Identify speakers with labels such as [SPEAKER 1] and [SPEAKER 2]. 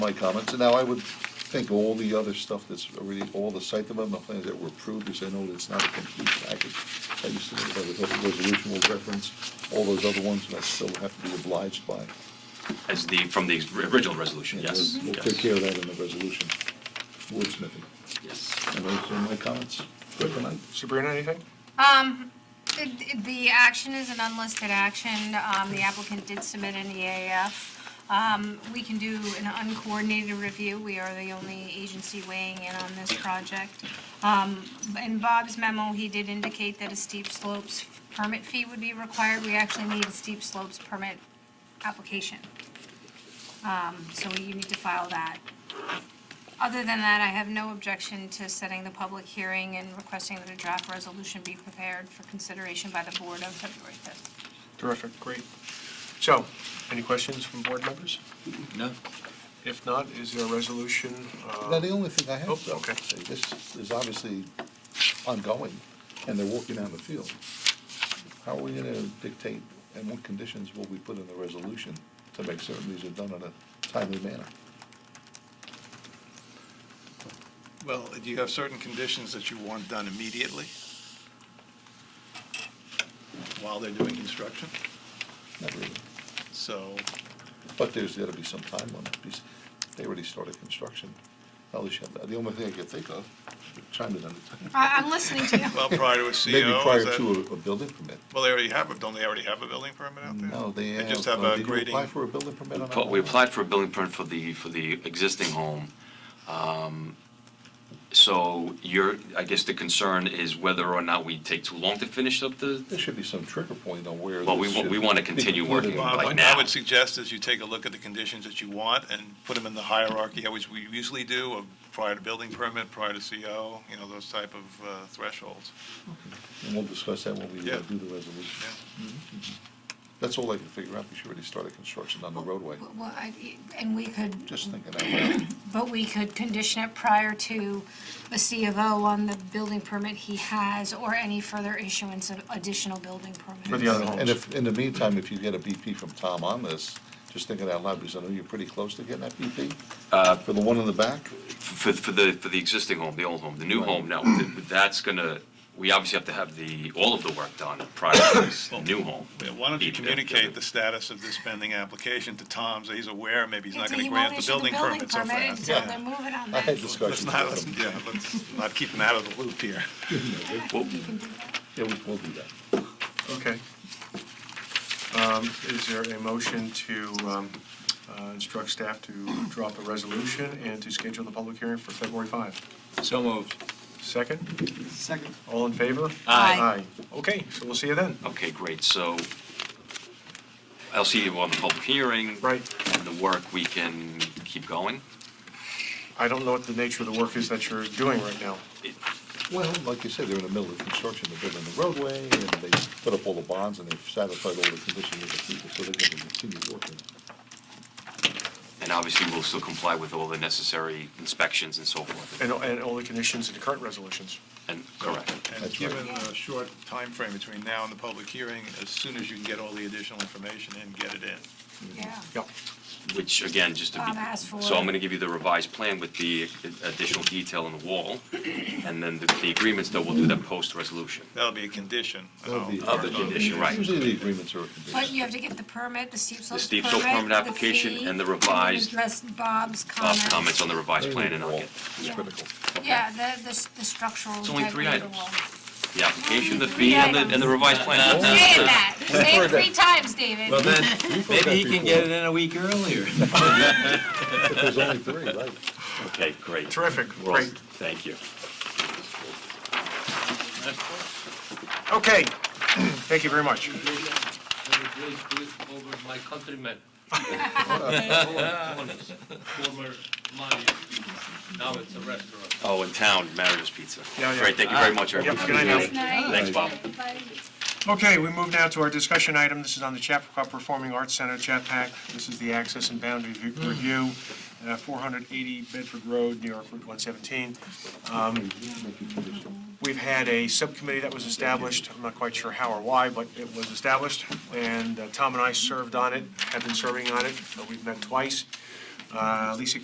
[SPEAKER 1] my comments, and now I would think all the other stuff that's already, all the site development plans that were approved, because I know that it's not a complete package. I used to think about the public resolution will reference all those other ones, and I still have to be obliged by.
[SPEAKER 2] As the, from the original resolution,
[SPEAKER 1] And
[SPEAKER 2] yes.
[SPEAKER 1] we'll- We'll
[SPEAKER 2] yes,
[SPEAKER 1] take care of that in the resolution, wordsmithing,
[SPEAKER 2] Yes.
[SPEAKER 1] and those are my comments. Good for now.
[SPEAKER 3] Sabrina, anything?
[SPEAKER 4] The- The action is an unlisted action. Um, The applicant did submit an EAF. Um, We can do an uncoordinated review. We are the only agency weighing in on this project. Um, In Bob's memo, he did indicate that a steep slopes permit fee would be required. We actually need a steep slopes permit application. Um, So you need to file that. Other than that, I have no objection to setting the public hearing and requesting that a draft resolution be prepared for consideration by the board on February 5th.
[SPEAKER 3] Terrific, great. So, any questions from board members?
[SPEAKER 2] No?
[SPEAKER 3] If not, is there a resolution? uh,
[SPEAKER 1] Now, the only thing I have,
[SPEAKER 3] Oh,
[SPEAKER 1] though,
[SPEAKER 3] okay.
[SPEAKER 1] this is obviously ongoing, and they're walking down the field. How are we gonna dictate, and what conditions will we put in the resolution to make certain these are done in a timely manner?
[SPEAKER 5] Well, do you have certain conditions that you want done immediately while they're doing construction?
[SPEAKER 1] Not really,
[SPEAKER 5] So,
[SPEAKER 1] but there's gotta be some time limit, because they already started construction. At least, you have- the only thing I could think of, chime in on it.
[SPEAKER 4] I- I'm listening to you.
[SPEAKER 5] well, prior to a CO, E is
[SPEAKER 1] Maybe prior
[SPEAKER 5] that-
[SPEAKER 1] to a, a building permit.
[SPEAKER 5] Well, they already have, it. don't they already have a building permit out there?
[SPEAKER 1] No, they have,
[SPEAKER 5] just have
[SPEAKER 1] uh,
[SPEAKER 5] a
[SPEAKER 1] did you
[SPEAKER 5] grading.
[SPEAKER 1] apply for a building permit on that?
[SPEAKER 2] But We
[SPEAKER 1] one?
[SPEAKER 2] applied for a building permit for the, for the existing home. Um, So your, I guess the concern is whether or not we take too long to finish up the,
[SPEAKER 1] There should be some trigger point on where.
[SPEAKER 2] Well, we
[SPEAKER 1] this
[SPEAKER 2] wa- we
[SPEAKER 1] should
[SPEAKER 2] wanna
[SPEAKER 1] be
[SPEAKER 2] continue
[SPEAKER 1] concluded.
[SPEAKER 2] working
[SPEAKER 5] Bob,
[SPEAKER 2] like
[SPEAKER 5] what I
[SPEAKER 2] now.
[SPEAKER 5] would suggest is you take a look at the conditions that you want and put them in the hierarchy, which we usually do, of prior to building permit, prior to CO, you know, those type of uh, thresholds.
[SPEAKER 1] And we'll discuss that when we uh,
[SPEAKER 5] Yeah.
[SPEAKER 1] do the resolution. Mm-hmm. That's all I can figure out, we should already started construction on the roadway,
[SPEAKER 4] Well, I- And we could,
[SPEAKER 1] just thinking out loud.
[SPEAKER 4] but we could condition it prior to a C of O on the building permit he has or any further issuance of additional building permits.
[SPEAKER 3] For the other homes.
[SPEAKER 1] And if, in the meantime, if you get a BP from Tom on this, just thinking out loud, because I know you're pretty close to getting that BP
[SPEAKER 2] Uh,
[SPEAKER 1] for the one in the back.
[SPEAKER 2] for, for the, for the existing home, the old home, the new
[SPEAKER 1] Right.
[SPEAKER 2] home, no. th- That's gonna, we obviously have to have the, all of the work done prior to this new home.
[SPEAKER 5] Yeah, Why don't you
[SPEAKER 2] Be-
[SPEAKER 5] communicate the status of this pending application to Tom, so he's aware, maybe he's not
[SPEAKER 4] He
[SPEAKER 5] going to
[SPEAKER 4] won't
[SPEAKER 5] grant the
[SPEAKER 4] issue the
[SPEAKER 5] building permit so fast.
[SPEAKER 4] Until
[SPEAKER 5] Yeah.
[SPEAKER 4] they're moving on
[SPEAKER 1] I
[SPEAKER 4] that.
[SPEAKER 1] had
[SPEAKER 5] Let's
[SPEAKER 1] discussions with
[SPEAKER 5] not, let's,
[SPEAKER 1] him.
[SPEAKER 5] yeah, let's not keep him out of the loop here.
[SPEAKER 4] I think you can do that.
[SPEAKER 1] Yeah, we- we'll do that.
[SPEAKER 3] Okay. Um, Is there a motion to um, uh, instruct staff to draw up a resolution and to schedule the public hearing for February 5?
[SPEAKER 6] So moved.
[SPEAKER 3] Second?
[SPEAKER 6] Second.
[SPEAKER 3] All in favor?
[SPEAKER 4] Aye.
[SPEAKER 3] Aye. Okay, so we'll see you then.
[SPEAKER 2] Okay, great, so I'll see you on the public hearing.
[SPEAKER 3] Right.
[SPEAKER 2] And the work, we can keep going.
[SPEAKER 3] I don't know what the nature of the work is that you're doing right now.
[SPEAKER 1] Well, like you said, they're in the middle of construction, they're building the roadway, and they put up all the bonds, and they've satisfied all the conditions of the people, so they're gonna continue working.
[SPEAKER 2] And obviously, we'll still comply with all the necessary inspections and so forth.
[SPEAKER 3] And and all the conditions in the current resolutions.
[SPEAKER 2] And, correct.
[SPEAKER 5] And
[SPEAKER 1] That's
[SPEAKER 5] given a short time frame between now and the public hearing, as soon as you can get all the additional information in, get it in.
[SPEAKER 4] Yeah.
[SPEAKER 3] Yep.
[SPEAKER 2] Which, again, just to be.
[SPEAKER 4] Bob asked for
[SPEAKER 2] So I'm
[SPEAKER 4] it.
[SPEAKER 2] going to give you the revised plan with the additional detail on the wall. And then the the agreements, though, we'll do that post-resolution.
[SPEAKER 5] That'll be a condition. and
[SPEAKER 1] That'll
[SPEAKER 5] I'll
[SPEAKER 1] be-
[SPEAKER 5] work
[SPEAKER 2] Um, Of the
[SPEAKER 5] on it.
[SPEAKER 2] condition, right.
[SPEAKER 1] Usually the agreements are a condition.
[SPEAKER 4] But you have to get the permit, the steep
[SPEAKER 2] The
[SPEAKER 4] slopes permit.
[SPEAKER 2] steep slope permit application
[SPEAKER 4] fee,
[SPEAKER 2] and the
[SPEAKER 4] then
[SPEAKER 2] revised-
[SPEAKER 4] Address Bob's
[SPEAKER 2] Bob,
[SPEAKER 4] comments.
[SPEAKER 2] comments on the revised plan, and I'll get
[SPEAKER 4] Yeah.
[SPEAKER 1] It's critical.
[SPEAKER 4] Yeah, the, the s- the structural.
[SPEAKER 2] It's only three
[SPEAKER 4] integrity of the
[SPEAKER 2] items.
[SPEAKER 4] wall.
[SPEAKER 2] the application, the
[SPEAKER 4] Three
[SPEAKER 2] fee, and the and the
[SPEAKER 4] items.
[SPEAKER 2] revised plan.
[SPEAKER 4] Saying that, say it three times, David.
[SPEAKER 6] Well, then,
[SPEAKER 1] that
[SPEAKER 6] maybe he can
[SPEAKER 1] before.
[SPEAKER 6] get it in a week earlier.
[SPEAKER 1] But there's only three, right?
[SPEAKER 2] Okay, great.
[SPEAKER 3] Terrific,
[SPEAKER 2] We're all-
[SPEAKER 3] great.
[SPEAKER 2] Thank you.
[SPEAKER 3] Okay. Thank you very much.
[SPEAKER 7] over my countrymen. Former Mali, now it's a restaurant.
[SPEAKER 2] Oh, in town, Mario's Pizza.
[SPEAKER 3] Yeah, yeah.
[SPEAKER 2] Great, thank you very much,
[SPEAKER 3] Yep,
[SPEAKER 2] everybody.
[SPEAKER 3] good night now.
[SPEAKER 2] Thanks, Bob.
[SPEAKER 3] Okay, we move now to our discussion item. This is on the Chappaqua Performing Arts Center, Chapac. This is the access and boundaries re- review, uh, 480 Bedford Road, New York, Route 117. Um, We've had a subcommittee that was established, I'm not quite sure how or why, but it was established, and uh, Tom and I served on it, have been serving on it, Uh, we've met twice. Uh, Lisa